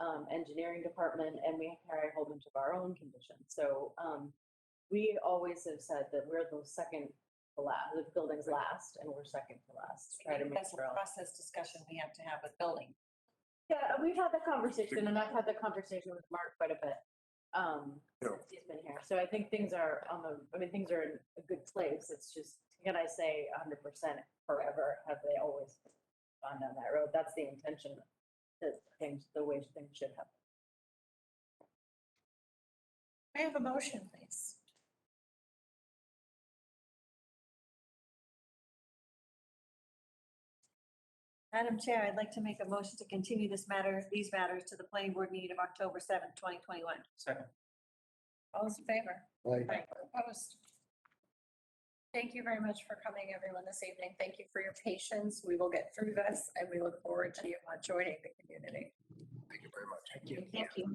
um, engineering department, and we carry a whole bunch of our own conditions. So um, we always have said that we're the second to last, the building's last, and we're second to last. to Try to make That's a sure. process discussion we have to have with building. Yeah, we've had that conversation, and I've had that conversation with Mark quite a bit. Um, Yeah. since he's been here, so I think things are on the. I mean, things are in a good place. It's just can I say 100 percent forever? Have they always gone down that road? That's the intention. That things, the way things should happen. May I have a motion, please? Madam Chair, I'd like to make a motion to continue this matter, these matters to the planning board meeting of October seventh, twenty twenty-one. Second. All those in favor? Aye. Aye. Opposed? Thank you very much for coming, everyone, this evening. Thank you for your patience. We will get through this, and we look forward to you uh, joining the community. Thank you very much. Thank you. Thank you.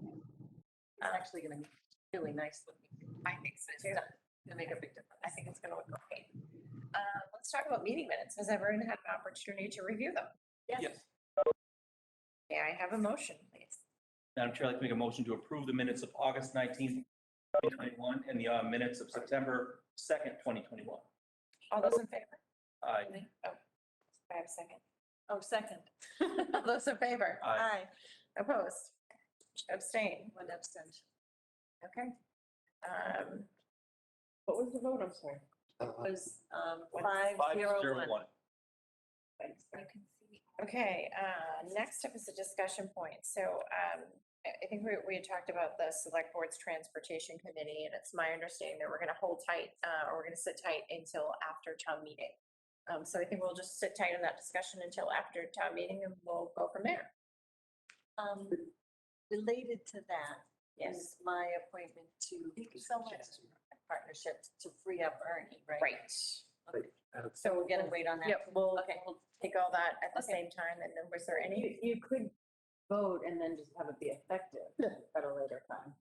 It's actually going to be really nice looking. I think so, too. It'll make a big difference. I think it's going to look great. Uh, Let's talk about meeting minutes. Has everyone had an opportunity to review them? Yes. May I have a motion, please? Madam Chair, I'd like to make a motion to approve the minutes of August 19th, 2021, and the uh, minutes of September 2nd, 2021. All those in favor? Aye. Oh, I have a second. Oh, second. All those in favor? Aye. Opposed? Abstain? One abstention. Okay. Um, What was the vote? I'm sorry. Uh, Was, um, One- five zero one. 501. Okay, uh, next up is a discussion point. So um, I I think we we had talked about the Select Board's Transportation Committee, and it's my understanding that we're going to hold tight, uh, or we're going to sit tight until after town meeting. Um, So I think we'll just sit tight on that discussion until after town meeting, and we'll go from there. Um, related to that is my appointment to someone partnership to free up Ernie, right? Right. So we're gonna wait on that. Yep, we'll Okay. we'll take all that at the Okay. same time, and then was there any? You, you could vote and then just have it be effective at a later time.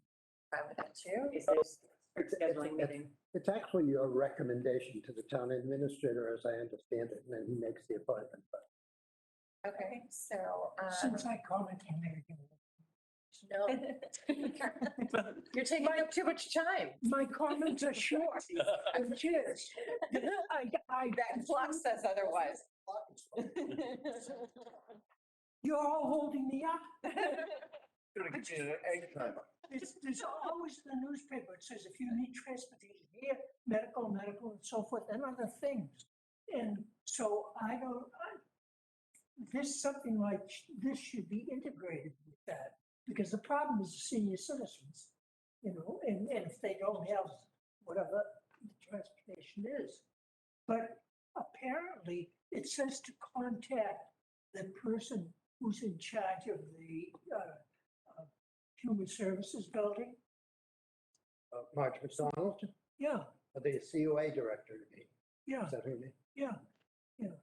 problem with that too? Is there's It's- it's- scheduling it's- meeting? It's actually your recommendation to the town administrator, as I understand it, and then he makes the appointment. but- Okay, so. um, I comment on everything, No. You're taking up too much time. my comments are short and cheers. I, I, That clock says otherwise. you're all holding me up. Anytime. There's, there's always the newspaper, it says if you need transportation here, medical, medical and so forth, and other things. And so I don't, I, this, something like, sh- this should be integrated with that. Because the problem is the senior citizens, you know, and, and if they don't have whatever the transportation is. But apparently, it says to contact the person who's in charge of the, uh, Human Services Building? Uh, Marge McDonald, Yeah, uh, the COA director, you mean? yeah, is that her name? yeah, yeah.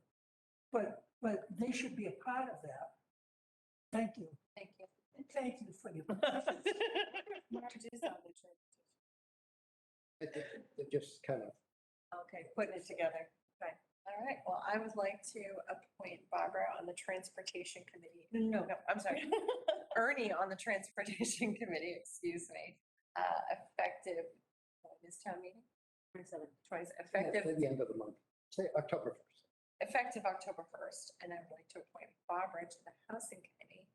But, but they should be a part of that. Thank you. Thank you. And Thank you for your. I think They're just kind of Okay, putting it together. All right, well, I would like to appoint Barbara on the Transportation Committee. No, no, no, I'm sorry. Ernie on the Transportation Committee, excuse me, uh, effective, what, this town meeting, 27. twice, yeah, effective at the end of the month, say October 1st. effective October 1st, and I would like to appoint Barbara to the Housing Committee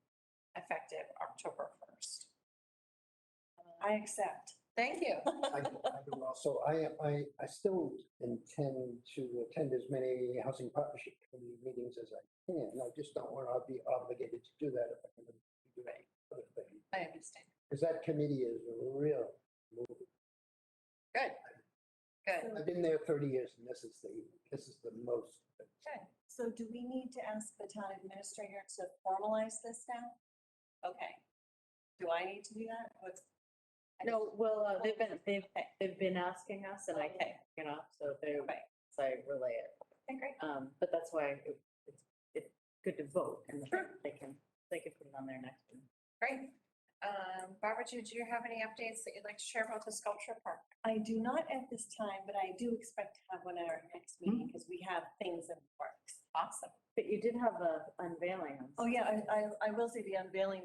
effective October 1st. I accept. Thank you. I I do also, I, I, I still intend to attend as many housing partnership committee meetings as I can. I just don't want to be obligated to do that if I can do that other thing. I understand. Because that committee is a real, move. Good. Good. I've been there 30 years and this is the, this is the most. So do we need to ask the town administrator to formalize this now? Okay. Do I need to do that? What's? I just- No, well, uh, they've been, they've, they've been asking us and I can't, Okay. you know, so they, Right. so I relay it. Okay, great. Um, but that's why it- it's, it's good to vote and then Sure. they can, they can put it on their next. one. Great. Um, Barbara, do do you have any updates that you'd like to share about the sculpture park? I do not at this time, but I do expect to have one at our next meeting because we have things in the works. Hmm. Awesome. But you did have a unveiling on Oh, yeah, I, I, I will say the unveiling